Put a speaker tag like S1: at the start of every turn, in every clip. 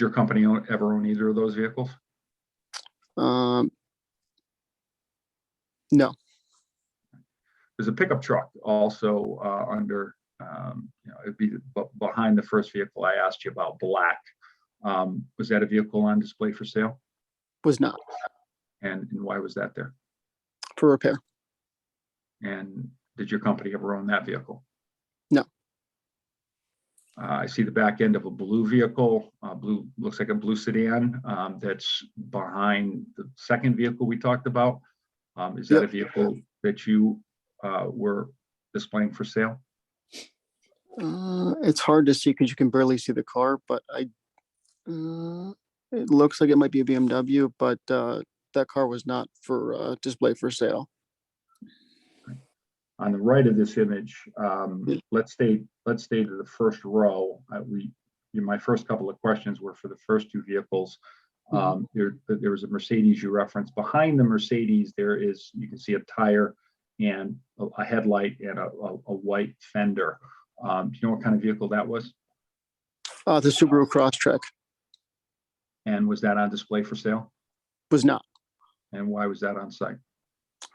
S1: your company own- ever own either of those vehicles?
S2: Um, no,
S1: There's a pickup truck also uh, under, um, you know, it'd be b- behind the first vehicle I asked you about, black. Um, Was that a vehicle on display for sale?
S2: was not
S1: And and why was that there?
S2: for repair.
S1: And did your company ever own that vehicle?
S2: No.
S1: Uh, I see the back end of a blue vehicle, uh, blue, looks like a blue sedan, um, that's behind the second vehicle we talked about. Um, is that a
S2: Yep.
S1: vehicle that you, uh, were displaying for sale?
S2: Uh, it's hard to see because you can barely see the car, but I, uh, it looks like it might be a BMW, but, uh, that car was not for, uh, display for sale.
S1: on the right of this image, um,
S2: Mm.
S1: let's stay, let's stay to the first row. Uh, we, you know, my first couple of questions were for the first two vehicles.
S2: Mhm.
S1: Um, there, there was a Mercedes you referenced. Behind the Mercedes, there is, you can see a tire and a- a headlight and a, a, a white fender. Um, do you know what kind of vehicle that was?
S2: Uh, the Subaru Crosstrek
S1: And was that on display for sale?
S2: was not
S1: And why was that on site?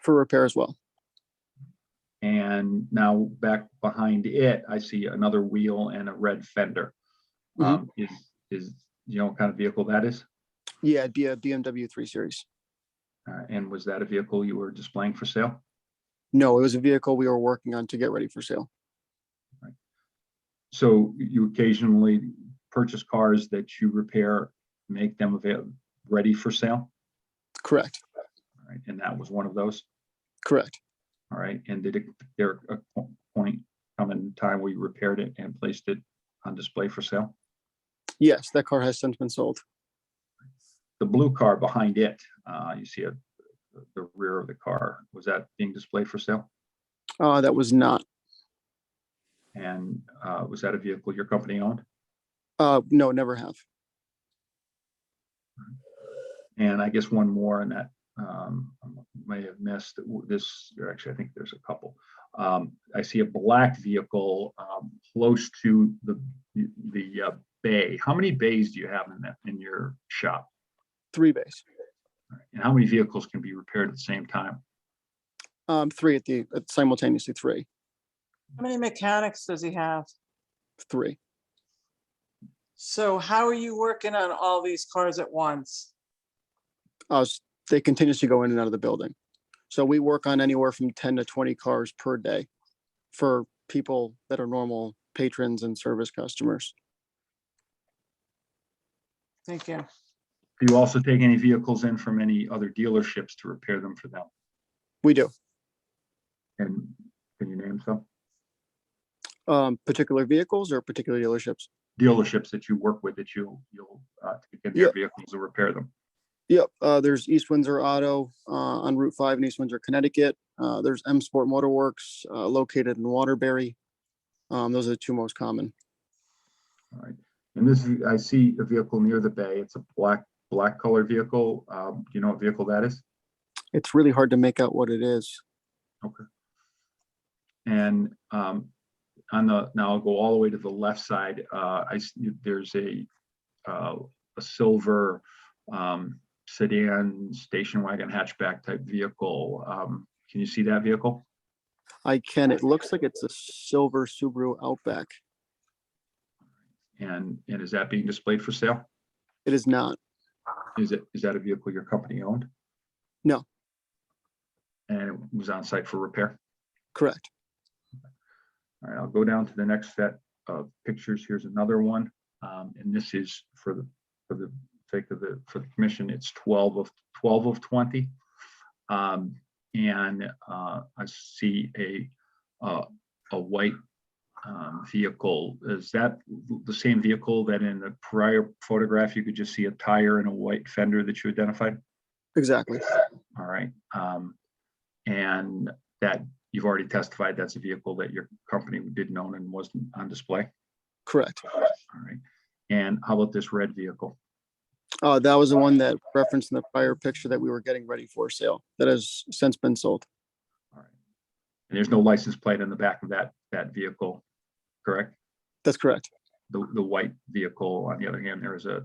S2: for repair as well.
S1: And now back behind it, I see another wheel and a red fender.
S2: Mhm.
S1: Um, is, is, you know what kind of vehicle that is?
S2: Yeah, it'd be a BMW 3 Series.
S1: Uh, And was that a vehicle you were displaying for sale?
S2: No, it was a vehicle we were working on to get ready for sale.
S1: So you occasionally purchase cars that you repair, make them avail, ready for sale?
S2: Correct,
S1: All right, and that was one of those?
S2: correct.
S1: All right, and did it, there a po- point come in time where you repaired it and placed it on display for sale?
S2: Yes, that car has since been sold.
S1: The blue car behind it, uh, you see a, the rear of the car, was that being displayed for sale?
S2: Uh, that was not,
S1: And, uh, was that a vehicle your company owned?
S2: uh, no, never have.
S1: And I guess one more and that um, I may have missed w- this, or actually, I think there's a couple. Um, I see a black vehicle um, close to the, the uh, bay. How many bays do you have in that, in your shop?
S2: Three bays,
S1: And how many vehicles can be repaired at the same time?
S2: um, three at the, at simultaneously, three,
S3: How many mechanics does he have?
S2: three.
S3: So how are you working on all these cars at once?
S2: Uh, s- they continuously go in and out of the building. So we work on anywhere from ten to twenty cars per day for people that are normal patrons and service customers.
S3: Thank you.
S1: Do you also take any vehicles in from any other dealerships to repair them for them?
S2: We do,
S1: And can you name some
S2: um, particular vehicles or particular dealerships.
S1: dealerships that you work with that you, you'll uh, take in their
S2: Yeah.
S1: vehicles to repair them?
S2: Yep, uh, there's East Windsor Auto, uh, on Route Five in East Windsor, Connecticut. Uh, there's M Sport Motorworks, uh, located in Waterbury. Um, those are the two most common.
S1: All right, and this, is- I see a vehicle near the bay. It's a black, black colored vehicle. Um, do you know what vehicle that is?
S2: It's really hard to make out what it is.
S1: And, um, on the, now I'll go all the way to the left side. Uh, I, s- there's a, uh, a silver, um, sedan, station wagon hatchback type vehicle. Um, can you see that vehicle?
S2: I can, it looks like it's a silver Subaru Outback.
S1: And, and is that being displayed for sale?
S2: It is not.
S1: Is it, is that a vehicle your company owned?
S2: No.
S1: And it was on site for repair?
S2: Correct.
S1: All right, I'll go down to the next set of pictures. Here's another one. Um, and this is for the, for the sake of the, for the commission, it's twelve of, twelve of twenty. Um, and, uh, I see a, uh, a white, um, vehicle. Is that the same vehicle that in the prior photograph, you could just see a tire and a white fender that you identified?
S2: Exactly.
S1: All right, um, and that, you've already testified that's a vehicle that your company didn't own and wasn't on display,
S2: Correct.
S1: all right? And how about this red vehicle?
S2: Uh, that was the one that referenced in the prior picture that we were getting ready for sale that has since been sold.
S1: All right. And there's no license plate on the back of that, that vehicle, correct?
S2: That's correct.
S1: The, the white vehicle, on the other hand, there is a